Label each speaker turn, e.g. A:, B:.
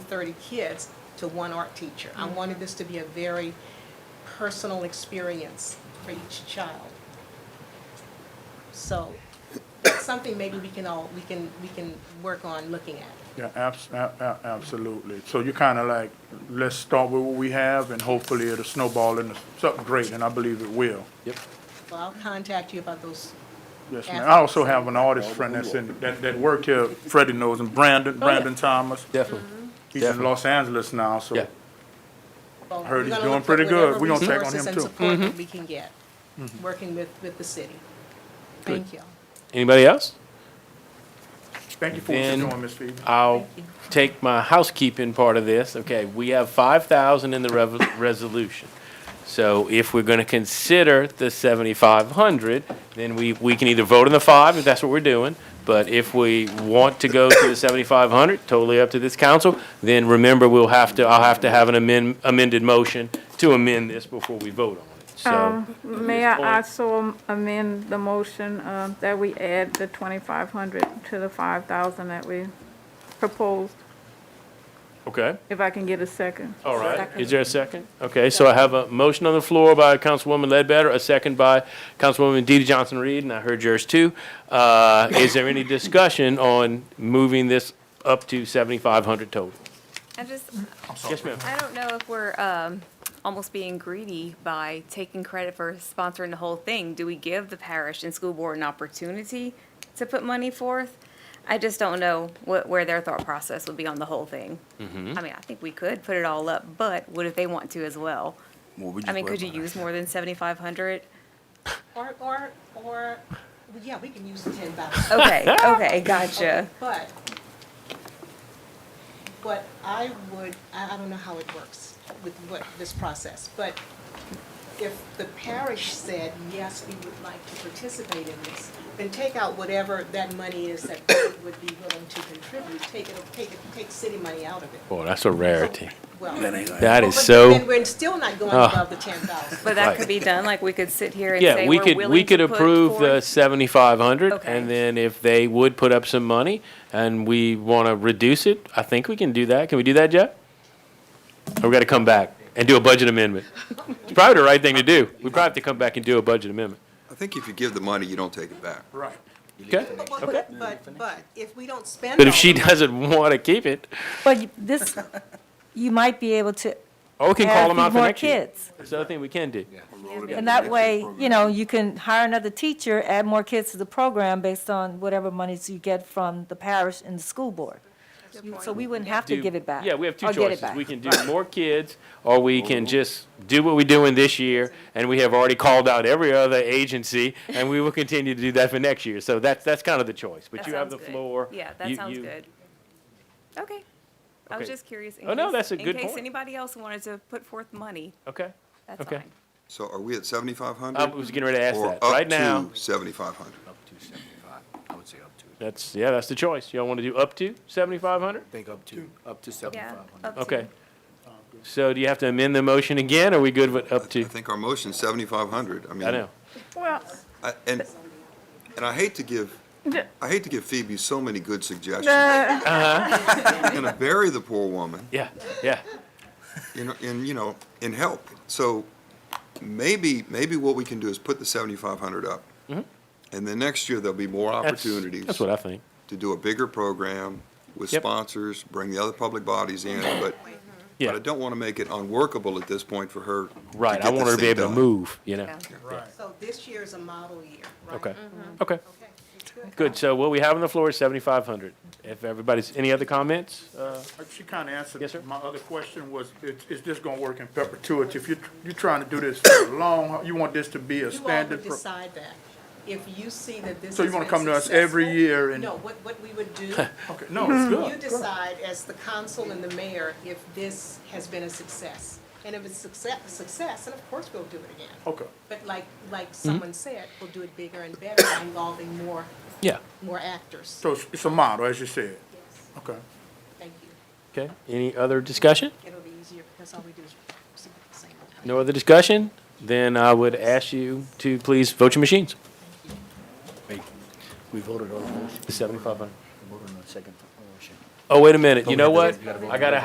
A: 30 kids to one art teacher. I wanted this to be a very personal experience for each child. So that's something maybe we can all, we can, we can work on looking at.
B: Yeah, abs- a- a- absolutely. So you're kind of like, let's start with what we have and hopefully it'll snowball into something great, and I believe it will.
C: Yep.
A: So I'll contact you about those.
B: Yes, ma'am. I also have an artist friend that's in, that, that worked here, Freddie knows, and Brandon,
A: Oh, yeah.
B: Brandon Thomas.
C: Definitely.
B: He's in
C: definitely.
B: Los Angeles now, so
C: Yeah.
A: well,
B: Heard
A: we're
B: he's
A: gonna
B: doing
A: look for
B: pretty good.
A: whatever
B: We're gonna check on
A: resources
B: him,
A: and
B: too. Mm-hmm.
A: support that we can get, working with, with the city. Thank you.
C: Anybody else?
B: thank you for what you're
C: Then-
B: doing, Ms. Phoebe.
C: I'll
A: Thank
C: take my housekeeping part of this. Okay, we have five thousand in the rev- resolution. So if we're gonna consider the seventy-five hundred, then we, we can either vote on the five, if that's what we're doing. But if we want to go to the seventy-five hundred, totally up to this council, then remember, we'll have to, I'll have to have an amend, amended motion to amend this before we vote on it, so.
D: Um, May
C: point-
D: I also amend the motion uh, that we add the 2,500 to the 5,000 that we proposed,
C: Okay.
D: if I can get a second?
C: All right, is there a second? Okay, so I have a motion on the floor by Councilwoman Ledbetter, a second by Councilwoman DeeDee Johnson-Reed, and I heard yours too. Uh, Is there any discussion on moving this up to 7,500 total?
E: I just,
C: Yes, ma'am.
E: I don't know if we're um, almost being greedy by taking credit for sponsoring the whole thing. Do we give the parish and school board an opportunity to put money forth? I just don't know what, where their thought process would be on the whole thing. I
C: Mm-hmm.
E: mean, I think we could put it all up, but what if they want to as well? I mean, could you use more than 7,500?
A: Or, or, or, yeah, we can use the 10,000.
E: Okay, okay, gotcha.
A: But, but I would, I, I don't know how it works with what, this process, but if the parish said, yes, we would like to participate in this, then take out whatever that money is that they would be willing to contribute, take it, take it, take city money out of it.
C: Boy, that's a rarity.
A: Well,
C: That is
A: but
C: so,
A: Then we're still not going
C: Ah.
A: above the ten thousand.
E: But
C: Right.
E: that could be done, like, we could sit here and
C: yeah,
E: say
C: we
E: we're
C: could, we
E: willing
C: could
E: to put
C: approve the
E: forth.
C: 7,500,
E: Okay.
C: and then if they would put up some money and we want to reduce it, I think we can do that. Can we do that, Jeff? Or we got to come back and do a budget amendment? It's probably the right thing to do. We probably have to come back and do a budget amendment.
F: I think if you give the money, you don't take it back.
B: Right.
C: Okay?
A: But, but, but- but if we don't spend.
C: But if
A: all
C: she
A: of it-
C: doesn't want to keep it,
G: Well, you- this, you might be able to
C: oh, we can call
G: add a
C: them out
G: few
C: for
G: more
C: next year.
G: kids.
C: That's another thing we can do.
G: And that way, you know, you can hire another teacher, add more kids to the program based on whatever monies you get from the parish and the school board. So we wouldn't have to
C: do-
G: give it back.
C: Yeah, we have two
G: or get it
C: choices.
G: back.
C: We can do more kids, or we can just do what we're doing this year, and we have already called out every other agency, and we will continue to do that for next year. So that's, that's kind of the choice, but
E: That
C: you have the
E: sounds good.
C: floor.
E: Yeah, that
C: You-
E: sounds
C: you-
E: good. Okay. I was
C: Okay.
E: just curious. in
C: Oh, no,
E: case-
C: that's a good
E: In
C: point.
E: case anybody else wanted to put forth money,
C: Okay.
E: that's
C: Okay.
E: fine.
F: So are we at seventy-five
C: I
F: hundred?
C: was getting ready to ask that. Right
F: Or
C: now,
F: up to seventy-five hundred?
H: Up to seventy-five, I would say up to,
C: that's, yeah, that's the choice. Y'all want to do up to 7,500?
H: think up to, up to
E: Yeah.
H: seventy-five hundred.
E: up to-
C: Okay. So do you have to amend the motion again, or are we good with up
F: I
C: to?
F: think our motion's seventy-five hundred. I mean.
C: I know.
D: Well,
F: I- And, and I hate to give,
D: d-
F: I hate to give Phoebe so many good suggestions. I'm
D: the-
F: gonna bury the poor woman,
C: Yeah, yeah.
F: you know, in, you know, in help. So maybe, maybe what we can do is put the seventy-five hundred up. And then next year, there'll be more
C: Mm-hmm. That's-
F: opportunities.
C: That's what I think.
F: To do a bigger program with
C: Yep.
F: sponsors, bring the other public bodies in, but But
C: Yeah,
F: I don't want to make it unworkable at this point for her.
C: right. I
F: get
C: want her
F: this
C: to be
F: thing
C: able to
F: done.
C: move, you know?
E: Yeah.
A: So this year is a model year, right? Mm-hmm.
C: Okay, okay.
A: Okay, that's good.
C: Good, so what we have on the floor is seventy-five hundred. If everybody's, any other comments? Uh,
B: She kind of answered.
C: Yes, sir.
B: My other question was, is, is this going to work in perpetuity? If you're, you're trying to do this for the long, you want this to be a
A: You all
B: standard.
A: would
B: pro-
A: decide that. If you see that this
B: So you
A: has
B: wanna
A: been
B: come to us every
A: successful-
B: year and-
A: No, what, what we would do,
B: Okay, no, it's
A: you
B: good. good.
A: decide as the council and the mayor if this has been a success. And if it's success, success, then of course we'll do it again.
B: Okay.
A: But like, like
B: Hmm?
A: someone said, we'll do it bigger and better by involving more,
C: Yeah,
A: more actors.
B: So it's, it's a model, as you said.
A: Yes,
B: Okay.
A: Thank you.
C: okay. Any other discussion?
A: It'll be easier because all we do is same.
C: No other discussion? Then I would ask you to please vote your machines.
H: We voted on the motion,
C: Seventy-five hundred.
H: we voted on the second motion.
C: Oh, wait a minute, you know
H: we
C: what?
H: have to- we gotta vote
C: I gotta